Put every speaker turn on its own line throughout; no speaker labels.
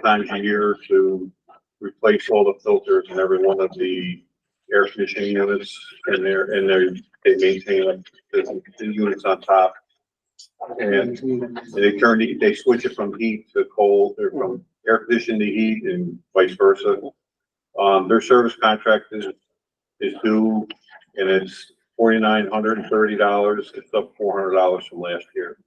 times a year to replace all the filters in every one of the air conditioning units and they're, and they're, they maintain like the, the units on top. And they turn, the- they switch it from heat to cold, or from air conditioning to heat and vice versa. Um, their service contract is, is due and it's forty-nine hundred and thirty dollars. It's up four hundred dollars from last year.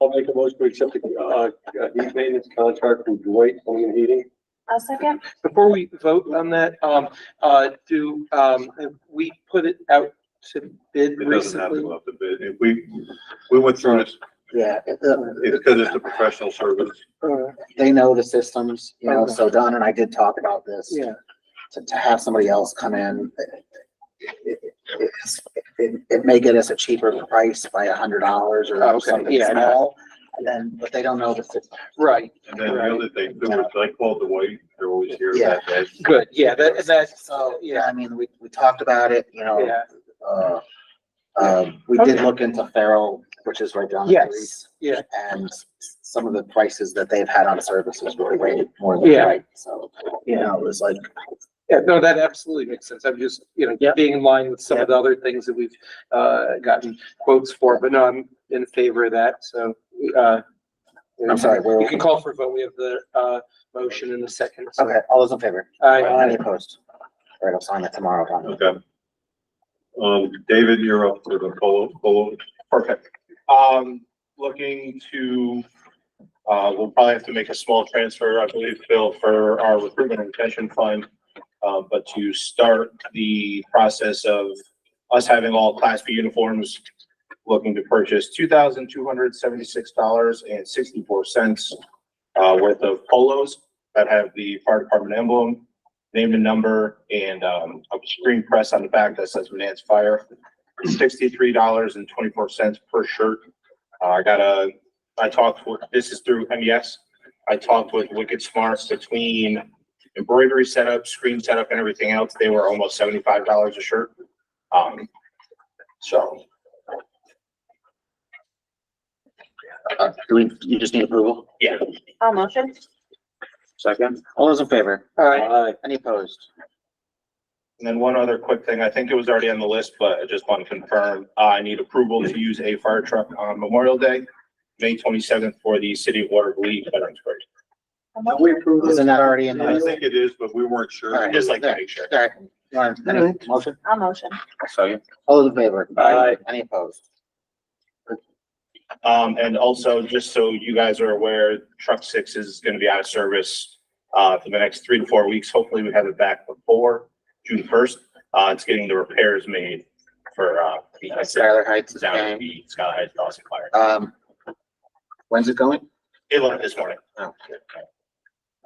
I'll make a motion to accept the, uh, uh, heat maintenance contract from Dwight Clean Heating.
I'll second.
Before we vote on that, um, uh, do, um, have we put it out to bid
It doesn't have to
recently?
go up the bid. If we, we went through this,
Yeah, uh,
it's because it's a professional service.
they know the systems, you know, so Don and I did talk about this.
Yeah,
To, to have somebody else come in, it- it, it's- it, it may get us a cheaper price by a hundred dollars
Oh, okay.
or something
Yeah, I know.
small. And then, but they don't know the system.
right,
And then the other thing, too, is I called the way, they're always here that day.
good, yeah, that, that's,
So, yeah,
yeah,
I mean, we, we talked about it, you know,
yeah,
uh, um, we did
Okay.
look into Farrell, which is right down the
Yes.
street.
yeah.
And some of the prices that they've had on services were way more than
Yeah.
right, so, you know, it was like,
Yeah, no, that absolutely makes sense. I'm just, you know,
Yep.
being in line with some of the other things that we've, uh, gotten quotes for, but no, I'm in favor of that, so, uh.
I'm sorry, where-
You can call for a vote. We have the, uh, motion in the second. so-
okay, all those in favor? Any
Aye.
opposed? All right, I'll sign it tomorrow, Don.
Okay. Um, David, you're up for the polo, polo.
Perfect. Um, looking to, uh, we'll probably have to make a small transfer, I believe, Phil, for our recruitment and retention fund. Uh, but to start the process of us having all Class B uniforms, looking to purchase two thousand two hundred seventy-six dollars and sixty-four cents uh, worth of polos that have the fire department emblem, name and number, and, um, a screen press on the back that says Manans Fire sixty-three dollars and twenty-four cents per shirt. Uh, I got a, I talked with, this is through
E
MES. I talked with Wicked Smarts between embroidery setup, screen setup and everything else. They were almost seventy-five dollars a shirt. Um, so
Uh, Do we, you just need approval?
yeah,
I'll motion.
Second. All those in favor?
Aye.
Aye.
Any opposed?
And then one other quick thing, I think it was already on the list, but I just want to confirm, uh, I need approval to use a fire truck on Memorial Day, May twenty-seventh for the City of Waterloo Veterans Parade.
I'll
Now,
motion.
we approve this.
Isn't that already in
I
the?
think it is, but we weren't sure.
All right.
Just like to make sure.
All right. You want any Motion?
I'll motion.
All those in favor?
Aye.
Any opposed?
Um, and also, just so you guys are aware, truck six is gonna be out of service, uh, for the next three to four weeks. Hopefully, we have it back before June first. Uh, it's getting the repairs made for, uh, the
Skylar Heights is
down
game.
at the Skyline Heights Dawson Fire.
Um, when's it going?
It left this morning.
Oh.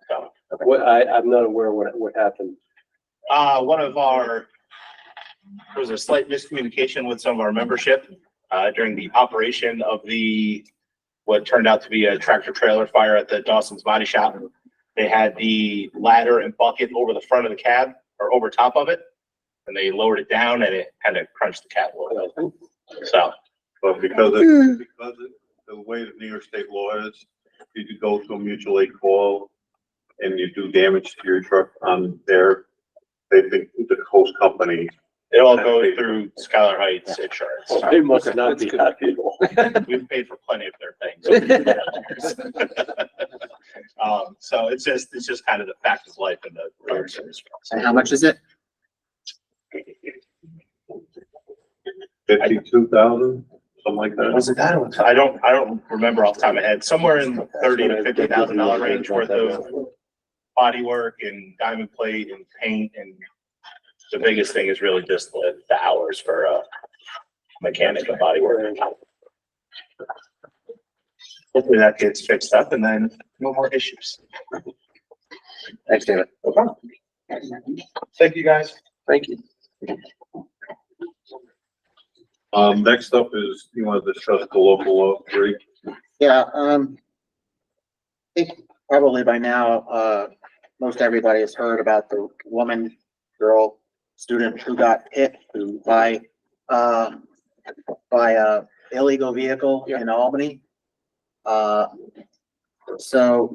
So,
What, I, I'm not aware what, what happened.
uh, one of our, there was a slight miscommunication with some of our membership, uh, during the operation of the, what turned out to be a tractor trailer fire at the Dawson's Body Shop. They had the ladder and bucket over the front of the cab or over top of it. And they lowered it down and it kind of crunched the cab a little bit. So,
But because it, because it, the way that New York state law is, you could go to a mutual aid call and you do damage to your truck on there, they think the host company,
it all goes through Skylar Heights insurance.
They must not
That's
be
good.
happy.
We've paid for plenty of their things. Um, so it's just, it's just kind of the fact of life in the fire service.
And how much is it?
fifty-two thousand, something like that.
Was it that? or- I don't, I don't remember off the top of my head, somewhere in the thirty to fifty thousand dollar range worth of body work and diamond plate and paint and the biggest thing is really just the, the hours for, uh, mechanic and body work. Hopefully that gets fixed up and then no more issues.
Thanks, David.
Thank you, guys.
Thank you.
Um, next up is, you want to discuss the local law three?
Yeah, um, I think probably by now, uh, most everybody has heard about the woman, girl, student who got hit by, uh, by a illegal vehicle in Albany. Uh, so